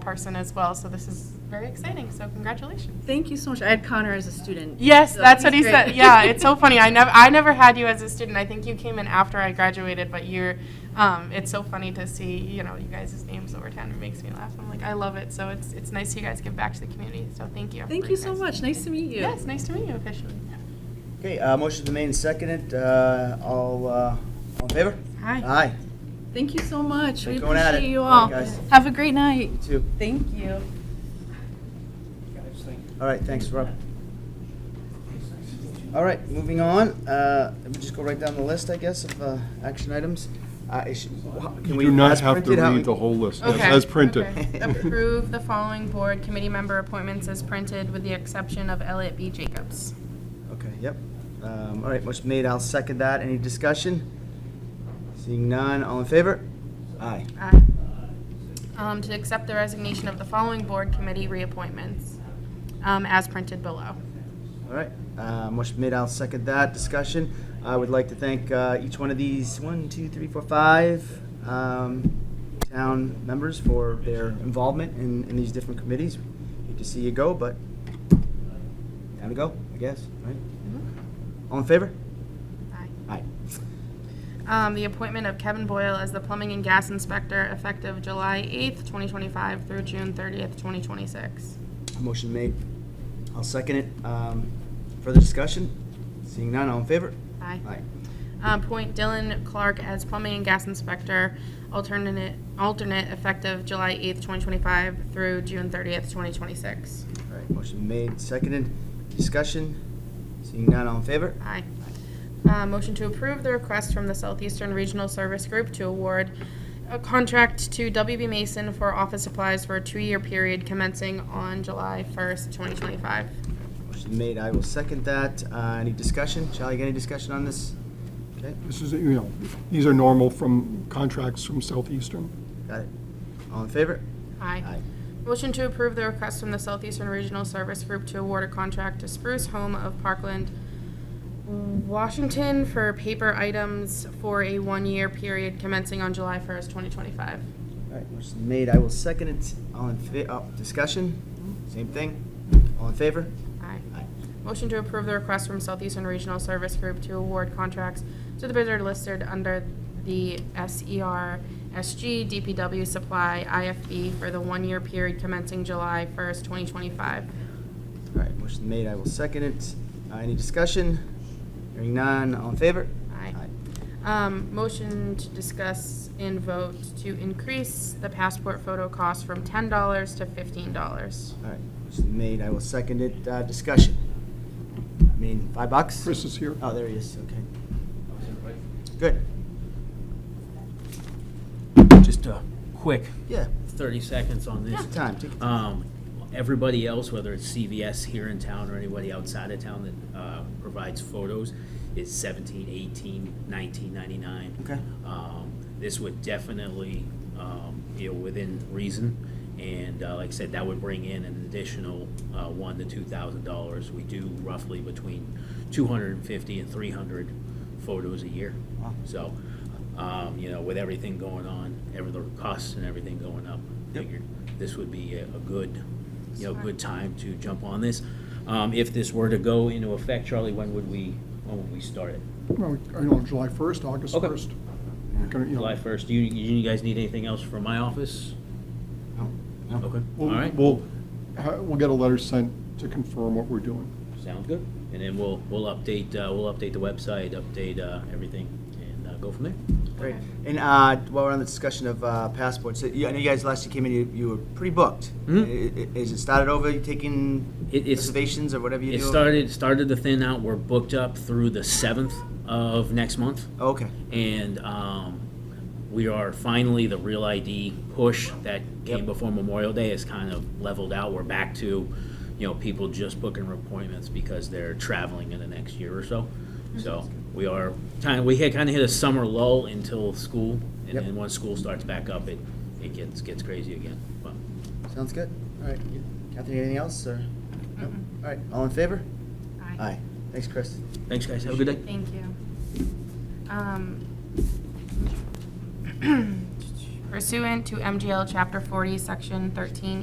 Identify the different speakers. Speaker 1: person as well, so this is very exciting, so congratulations.
Speaker 2: Thank you so much. I had Connor as a student.
Speaker 1: Yes,
Speaker 2: so
Speaker 1: that's what he
Speaker 2: he's
Speaker 1: said.
Speaker 2: great.
Speaker 1: Yeah, it's so funny. I never, I never had you as a student. I think you came in after I graduated, but you're, um, it's so funny to see, you know, you guys' names over town. It makes me laugh. I'm like, I love it. So it's, it's nice you guys give back to the community. So thank you.
Speaker 2: Thank you so much. Nice to meet you.
Speaker 1: Yes, nice to meet you officially.
Speaker 3: Okay, uh, motion's been made and seconded. Uh, all, uh, all in favor?
Speaker 1: Hi.
Speaker 3: Aye.
Speaker 2: Thank you so much. We
Speaker 3: Keep going at it.
Speaker 2: appreciate you
Speaker 3: All
Speaker 2: all.
Speaker 3: right, guys.
Speaker 2: Have a great night.
Speaker 3: Two.
Speaker 2: Thank you.
Speaker 3: All right, thanks, Rob. All right, moving on. Uh, we just go right down the list, I guess, of uh, action items. Uh, is- can
Speaker 4: You
Speaker 3: we-
Speaker 4: do not
Speaker 3: as
Speaker 4: have to
Speaker 3: printed, how-
Speaker 4: read the whole list,
Speaker 1: Okay.
Speaker 4: as printed.
Speaker 1: Okay. Approve the following board committee member appointments as printed with the exception of Elliot B. Jacobs.
Speaker 3: Okay, yep. Um, all right, motion made. I'll second that. Any discussion? Seeing none. All in favor? Aye.
Speaker 1: Aye. Um, to accept the resignation of the following board committee reappointments, um, as printed below.
Speaker 3: All right, uh, motion made, I'll second that discussion. I would like to thank uh, each one of these, one, two, three, four, five um, town members for their involvement in, in these different committees. Hate to see you go, but time to go, I guess, right? All in favor?
Speaker 1: Aye.
Speaker 3: Aye.
Speaker 1: Um, the appointment of Kevin Boyle as the plumbing and gas inspector effective July eighth, twenty twenty-five through June thirtieth, twenty twenty-six.
Speaker 3: Motion made, I'll second it. Um, Further discussion? Seeing none, all in favor?
Speaker 1: Aye.
Speaker 3: Aye.
Speaker 1: Um, appoint Dylan Clark as plumbing and gas inspector alternate, alternate effective July eighth, twenty twenty-five through June thirtieth, twenty twenty-six.
Speaker 3: All right, motion made, seconded, discussion? Seeing none, all in favor?
Speaker 1: Aye. Uh, Motion to approve the request from the Southeastern Regional Service Group to award a contract to WB Mason for office supplies for a two-year period commencing on July 1st, 2025.
Speaker 3: Motion made, I will second that. Uh, Any discussion? Charlie, get any discussion on this? Okay,
Speaker 4: This is, you know, these are normal from contracts from Southeastern.
Speaker 3: got it. All in favor?
Speaker 1: Aye. Motion to approve the request from the Southeastern Regional Service Group to award a contract to Spruce Home of Parkland, Washington for paper items for a one-year period commencing on July 1st, 2025.
Speaker 3: All right, motion made, I will second it. All in, fa- oh, discussion? Same thing? All in favor?
Speaker 1: Aye.
Speaker 3: Aye.
Speaker 1: Motion to approve the request from Southeastern Regional Service Group to award contracts to the bidder listed under the E SER SG DPW Supply IFB for the one-year period commencing July 1st, 2025.
Speaker 3: All right, motion made, I will second it. Uh, Any discussion? Hearing none, all in favor?
Speaker 1: Aye. Um, Motion to discuss and vote to increase the passport photo cost from $10 to $15.
Speaker 3: All right, motion made, I will second it. Uh, Discussion? I mean, five bucks?
Speaker 4: Chris is here.
Speaker 5: Uh,
Speaker 3: Oh, there he is, okay. Good,
Speaker 5: Just a quick
Speaker 3: yeah,
Speaker 5: 30 seconds on this.
Speaker 3: time, take your time.
Speaker 5: Um, Everybody else, whether it's CVS here in town or anybody outside of town that uh, provides photos, is 17, 18, 19.99.
Speaker 3: Okay.
Speaker 5: Um, This would definitely, um, you know, within reason, and uh, like I said, that would bring in an additional uh, one to two thousand dollars. We do roughly between 250 and 300 photos a year.
Speaker 3: Wow.
Speaker 5: So, um, you know, with everything going on, every, the costs and everything going up,
Speaker 3: Yep.
Speaker 5: figured this would be a, a good, you know, good time to jump on this. Um, if this were to go into effect, Charlie, when would we, when would we start it?
Speaker 4: Well, I know, July 1st, August
Speaker 5: Okay.
Speaker 4: 1st. We're gonna, you know,
Speaker 5: July first. Do you, you guys need anything else from my office?
Speaker 3: No, no.
Speaker 5: Uh, Okay, all
Speaker 4: we'll-
Speaker 5: right,
Speaker 4: We'll, ha- we'll get a letter sent to confirm what we're doing.
Speaker 5: sounds good. And then we'll, we'll update, uh, we'll update the website, update, uh, everything, and, uh, go from there.
Speaker 3: Great.
Speaker 1: Okay.
Speaker 3: And uh, while we're on the discussion of uh, passports, uh, you- I know you guys last you came in, you, you were pretty booked.
Speaker 5: Mhm.
Speaker 3: I- i- Is it started over? You taking
Speaker 5: It- it's-
Speaker 3: reservations or whatever you
Speaker 5: It
Speaker 3: do?
Speaker 5: started, started to thin out. We're booked up through the seventh of next month.
Speaker 3: Oh, okay.
Speaker 5: And um, we are finally, the Real ID push that came
Speaker 3: Yep.
Speaker 5: before Memorial Day is kind of leveled out. We're back to, you know, people just booking appointments because they're traveling in the next year or so. So we are kind of, we had kind of hit a summer lull until school. And
Speaker 3: Yep.
Speaker 5: then once school starts back up, it, it gets, gets crazy again. But
Speaker 3: Sounds good. All right. You- Catherine, anything else? Or? No. All right. All in favor? Aye. Thanks, Chris.
Speaker 5: thanks, guys. Have a good day.
Speaker 1: Thank you. Um, pursuant to MGL Chapter 40, Section 13